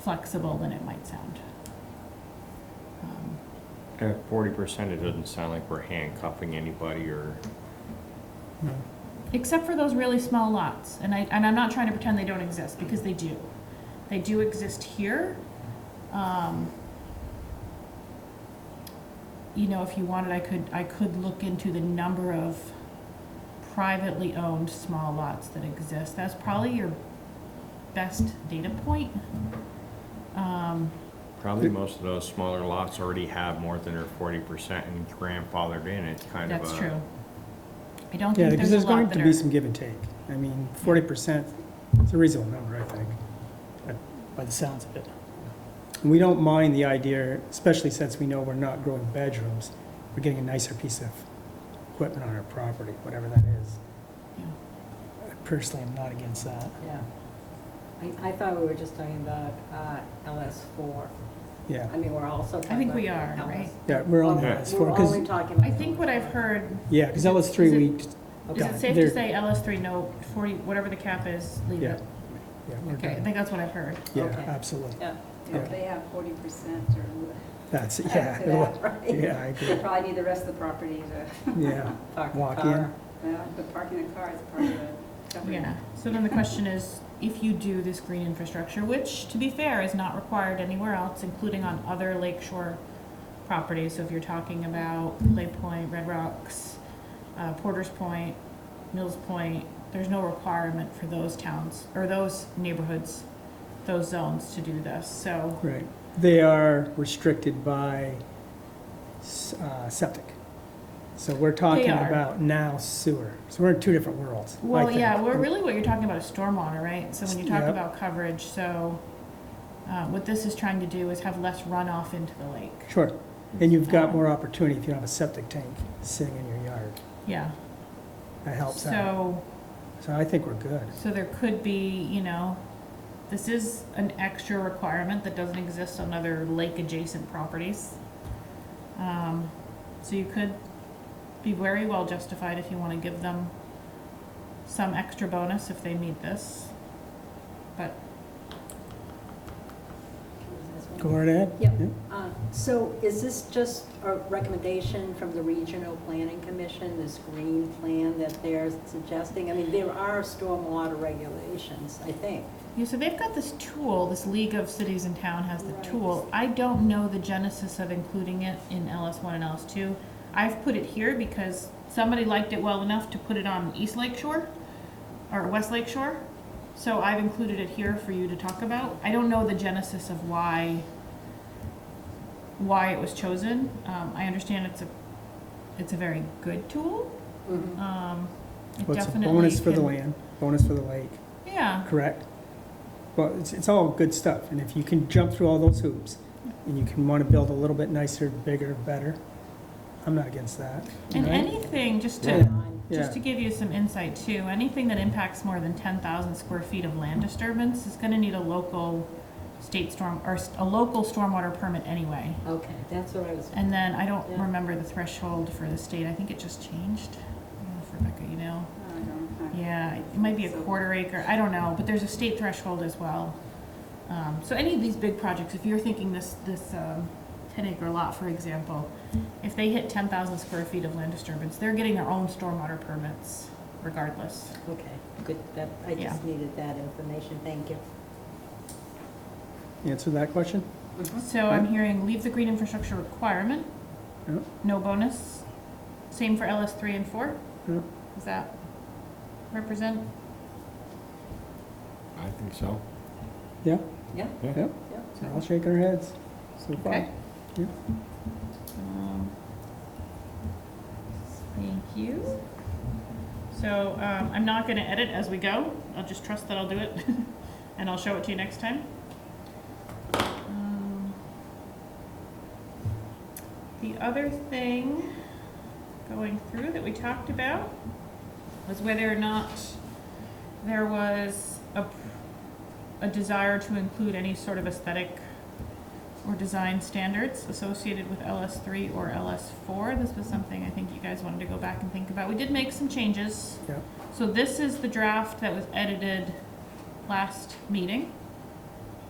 flexible than it might sound. Um, At Uh, forty percent, it doesn't sound like we're handcuffing anybody or, Except for those really small lots, and I, and I'm not trying to pretend they don't exist, because they do. They do exist here. Um, You know, if you wanted, I could, I could look into the number of privately owned small lots that exist. That's probably your best data point. Um, probably most of those smaller lots already have more than their forty percent and grandfathered in, it's kind of a. That's true. I don't Yeah, think because there's a there's going lot to that be are, some give and take. I mean, forty percent, it's a reasonable number, I think, by- by the sounds of it. And we don't mind the idea, especially since we know we're not growing bedrooms, we're getting a nicer piece of equipment on our property, whatever that is. Yeah. I Personally, I'm not against that. Yeah. I, I thought we were just talking about uh, LS4. Yeah, I mean, we're also I talking think about we are, LS. right? yeah, we're on Yeah. that. We're Because, only talking about. I think what I've heard, yeah, because LS three, Is it- we, is Yeah, it safe to there- say LS three, no, forty, whatever the cap is, leave yeah. it? yeah, we're Okay, I done. think that's what I've heard. Yeah, Okay. absolutely. Yeah. If they have forty percent or That's, it, less of yeah, that, right? yeah, I They agree, probably need the rest of the property to, yeah. Park the Walk car. in. well, the parking the car is part of the coverage. Yeah, so then the question is, if you do this green infrastructure, which, to be fair, is not required anywhere else, including on other lakeshore properties, so if you're talking about Lay Point, Red Rocks, uh, Porter's Point, Mills Point, there's no requirement for those towns, or those neighborhoods, those zones to do this, so, Right. They are restricted by s- uh, septic. So we're talking are. about now sewer. So we're in two different worlds. I well, think. yeah, we're really, what you're talking about is stormwater, right? So when you talk Yep. about coverage, so, uh, what this is trying to do is have less runoff into the lake. Sure. And you've Uh, got more opportunity if you don't have a septic tank sitting in your yard. Yeah, That helps out. so, So I think we're good. so there could be, you know, this is an extra requirement that doesn't exist on other lake-adjacent properties. Um, so you could be very well justified if you wanna give them some extra bonus if they meet this. But, Go right ahead. Yep. Uh, So is this just a recommendation from the Regional Planning Commission, this green plan that they're suggesting? I mean, there are stormwater regulations, I think. yeah, so they've got this tool, this League of Cities and Town has the Right. tool. I don't know the genesis of including it in LS one and LS two. I've put it here because somebody liked it well enough to put it on East Lake Shore or West Lake Shore. So I've included it here for you to talk about. I don't know the genesis of why why it was chosen. Um, I understand it's a it's a very good tool. Um, it What's a definitely bonus for the can- land, bonus for the lake, Yeah, correct? Well, it's, it's all good stuff. And if you can jump through all those hoops and you can want to build a little bit nicer, bigger, better, I'm not against that. and Right? anything just to Yeah. Just to give you some insight too, anything that impacts more than ten thousand square feet of land disturbance is gonna need a local state storm, or s- a local stormwater permit anyway. Okay, that's what I was, And then I don't Yeah. remember the threshold for the state, I think it just changed. I don't know if Rebecca, you know? I don't know. Yeah, it might be a quarter acre, I don't know, but there's a state threshold as well. Um, so any of these big projects, if you're thinking this, this, um, ten acre lot, for example, if they hit ten thousand square feet of land disturbance, they're getting their own stormwater permits regardless. okay, good, that, I just needed that information, thank you. Answer that question? So I'm hearing leave the green infrastructure requirement, Yep. no bonus. Same for LS three and four? Yep. Does that represent? I think so. Yeah? Yeah. Yep. Yeah. They're all shaking their heads so far. Okay. Yeah. Um, Thank you. So, um, I'm not gonna edit as we go, I'll just trust that I'll do it, and I'll show it to you next time. Um, The other thing going through that we talked about was whether or not there was a, p- a desire to include any sort of aesthetic or design standards associated with LS3 or LS4. This was something I think you guys wanted to go back and think about. We did make some changes. Yep. So this is the draft that was edited last meeting.